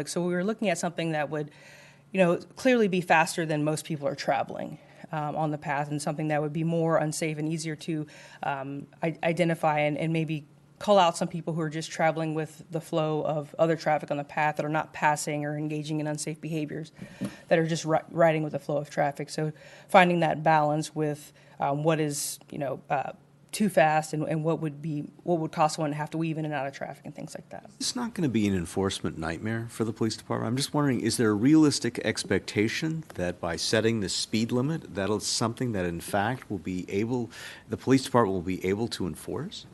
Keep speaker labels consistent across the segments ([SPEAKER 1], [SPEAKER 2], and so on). [SPEAKER 1] Like, so we were looking at something that would, you know, clearly be faster than most people are traveling um, on the path and something that would be more unsafe and easier to um, I- identify and, and maybe call out some people who are just traveling with the flow of other traffic on the path that are not passing or engaging in unsafe behaviors that are just ri- riding with the flow of traffic. So finding that balance with um, what is, you know, uh, too fast and, and what would be what would cost someone to have to weave in and out of traffic and things like that.
[SPEAKER 2] It's not going to be an enforcement nightmare for the police department. I'm just wondering, is there a realistic expectation that by setting the speed limit, that'll something that in fact will be able, the police department will be able to enforce?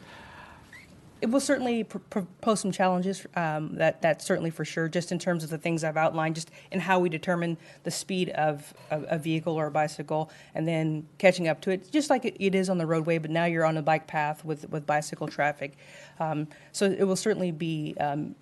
[SPEAKER 1] It will certainly pr- pr- pose some challenges. Um, that that's certainly for sure. Just in terms of the things I've outlined, just in how we determine the speed of a, a vehicle or a bicycle, and then catching up to it, just like it, it is on the roadway. But now you're on a bike path with with bicycle traffic, um, so it will certainly be um,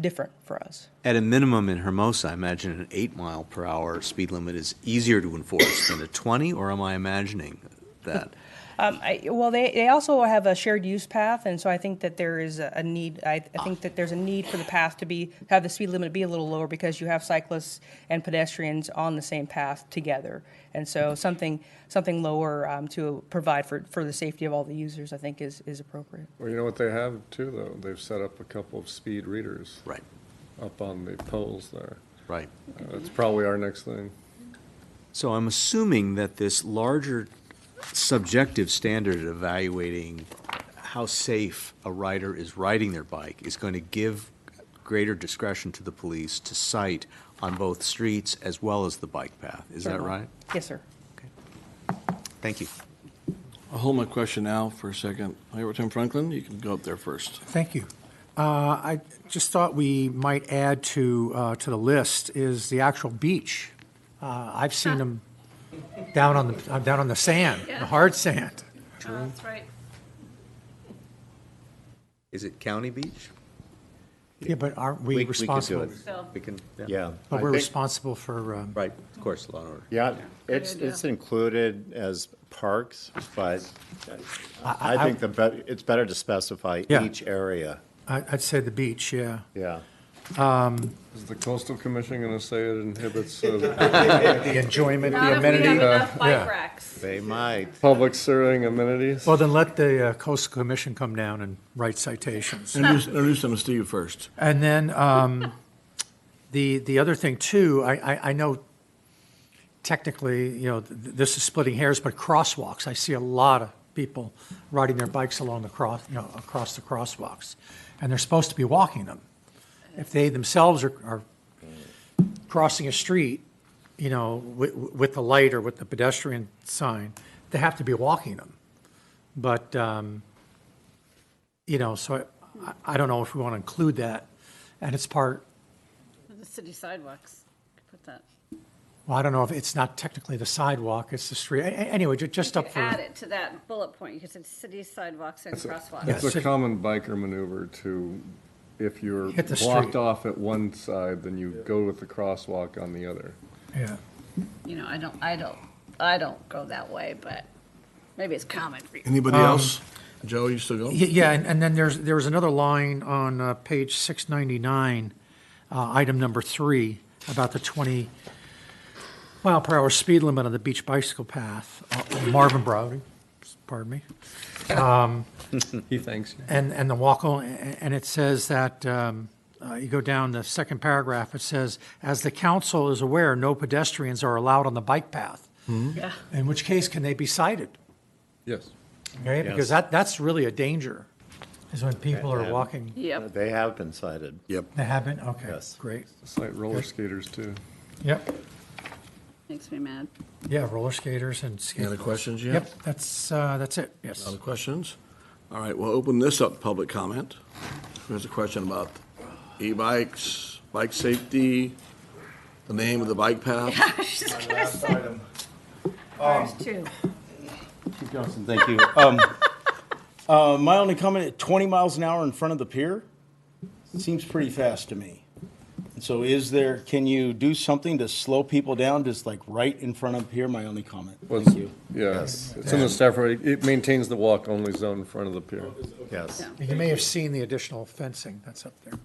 [SPEAKER 1] different for us.
[SPEAKER 2] At a minimum in Hermosa, I imagine an eight mile per hour speed limit is easier to enforce than a 20, or am I imagining that?
[SPEAKER 1] Um, I, well, they, they also have a shared use path, and so I think that there is a, a need. I, I think that there's a need for the path to be have the speed limit be a little lower because you have cyclists and pedestrians on the same path together, and so something something lower um, to provide for, for the safety of all the users, I think, is is appropriate.
[SPEAKER 3] Well, you know what they have too, though? They've set up a couple of speed readers
[SPEAKER 2] Right,
[SPEAKER 3] up on the poles there.
[SPEAKER 2] right.
[SPEAKER 3] Uh, That's probably our next thing.
[SPEAKER 2] So I'm assuming that this larger subjective standard evaluating how safe a rider is riding their bike is going to give greater discretion to the police to cite on both streets as well as the bike path. Is that
[SPEAKER 1] Certainly.
[SPEAKER 2] right?
[SPEAKER 1] Yes, sir.
[SPEAKER 2] Thank you.
[SPEAKER 4] I'll hold my question now for a second. Mayor Tim Franklin, you can go up there first.
[SPEAKER 5] Thank you. Uh, I just thought we might add to, uh, to the list is the actual beach. Uh, I've seen them down on the, uh, down on the sand, the
[SPEAKER 6] Yeah.
[SPEAKER 5] hard sand.
[SPEAKER 6] Oh, That's right.
[SPEAKER 2] Is it County Beach?
[SPEAKER 5] Yeah, but aren't
[SPEAKER 2] We- we
[SPEAKER 5] we
[SPEAKER 2] could do
[SPEAKER 5] responsible?
[SPEAKER 2] it.
[SPEAKER 6] So-
[SPEAKER 2] We can, yeah.
[SPEAKER 7] Yeah.
[SPEAKER 5] But
[SPEAKER 7] I
[SPEAKER 5] we're
[SPEAKER 7] think-
[SPEAKER 5] responsible for, um,
[SPEAKER 2] Right, of course, law and order.
[SPEAKER 7] Yeah, it's,
[SPEAKER 6] idea.
[SPEAKER 7] it's included as parks, but
[SPEAKER 5] I-
[SPEAKER 7] I think the, bet- it's better to specify
[SPEAKER 5] Yeah.
[SPEAKER 7] each area.
[SPEAKER 5] I- I'd say the beach, yeah.
[SPEAKER 7] Yeah.
[SPEAKER 3] Is the coastal commission going to say it inhibits uh,
[SPEAKER 5] The enjoyment,
[SPEAKER 6] Not
[SPEAKER 5] the uh,
[SPEAKER 6] if we have
[SPEAKER 5] amenity.
[SPEAKER 6] enough
[SPEAKER 5] yeah.
[SPEAKER 6] bike racks.
[SPEAKER 7] They might.
[SPEAKER 3] public serving amenities?
[SPEAKER 5] Well, then let the uh, Coastal Commission come down and write citations.
[SPEAKER 4] Introduce, introduce them to Steve first.
[SPEAKER 5] And then um, the the other thing too, I, I, I know technically, you know, th- this is splitting hairs, but crosswalks. I see a lot of people riding their bikes along the cross, you know, across the crosswalks, and they're supposed to be walking them. If they themselves are, are crossing a street, you know, with, with the light or with the pedestrian sign, they have to be walking them. But um, you know, so I, I don't know if we want to include that. And it's part,
[SPEAKER 6] The city sidewalks, Could put that.
[SPEAKER 5] well, I don't know if it's not technically the sidewalk, it's the street. A- a- Anyway, ju- just
[SPEAKER 6] You
[SPEAKER 5] up
[SPEAKER 6] could
[SPEAKER 5] for.
[SPEAKER 6] Add it to that bullet point, you could say city sidewalks and
[SPEAKER 3] It's
[SPEAKER 6] crosswalks.
[SPEAKER 3] a common biker maneuver to, if you're
[SPEAKER 5] Hit the
[SPEAKER 3] blocked
[SPEAKER 5] street.
[SPEAKER 3] off at one side, then you go with the crosswalk on the other.
[SPEAKER 5] Yeah.
[SPEAKER 6] You know, I don't, I don't, I don't go that way, but maybe it's common for you.
[SPEAKER 5] Mm-hmm.
[SPEAKER 4] Anybody else? Um, Joe, you still go?
[SPEAKER 5] Y- Yeah, and, and then there's, there was another line on uh, page 699, uh, item number three, about the 20 mile per hour speed limit on the beach bicycle path, uh, Marvin Browdy, pardon me.
[SPEAKER 3] He thanks you.
[SPEAKER 5] And, and the walk, on- and it says that, um, uh, you go down the second paragraph, it says, as the council is aware, no pedestrians are allowed on the bike path.
[SPEAKER 6] Yeah.
[SPEAKER 5] In which case, can they be cited?
[SPEAKER 3] Yes.
[SPEAKER 5] Okay, because that, that's really a danger, is when people are walking.
[SPEAKER 6] Yep,
[SPEAKER 7] They have been cited.
[SPEAKER 4] Yep.
[SPEAKER 5] They haven't, okay,
[SPEAKER 7] Yes.
[SPEAKER 5] great.
[SPEAKER 3] It's like roller skaters too.
[SPEAKER 5] Yep,
[SPEAKER 6] makes me mad.
[SPEAKER 5] yeah, roller skaters and
[SPEAKER 4] Any other
[SPEAKER 5] skateboarders.
[SPEAKER 4] questions you have?
[SPEAKER 5] Yep, that's, uh, that's it, yes.
[SPEAKER 4] Other questions? All right, we'll open this up, to public comment. There's a question about e-bikes, bike safety, the name of the bike path.
[SPEAKER 6] There's two.
[SPEAKER 8] Chief Johnson, thank you. Um, uh, my only comment, at 20 miles an hour in front of the pier seems pretty fast to me. So is there, can you do something to slow people down, just like right in front of pier? My only comment.
[SPEAKER 3] Well,
[SPEAKER 8] Thank you.
[SPEAKER 3] Yeah, it's in the staff, reg- it maintains the walk-only zone in front of the pier.
[SPEAKER 7] Yes.
[SPEAKER 5] You may have seen the additional fencing that's up there.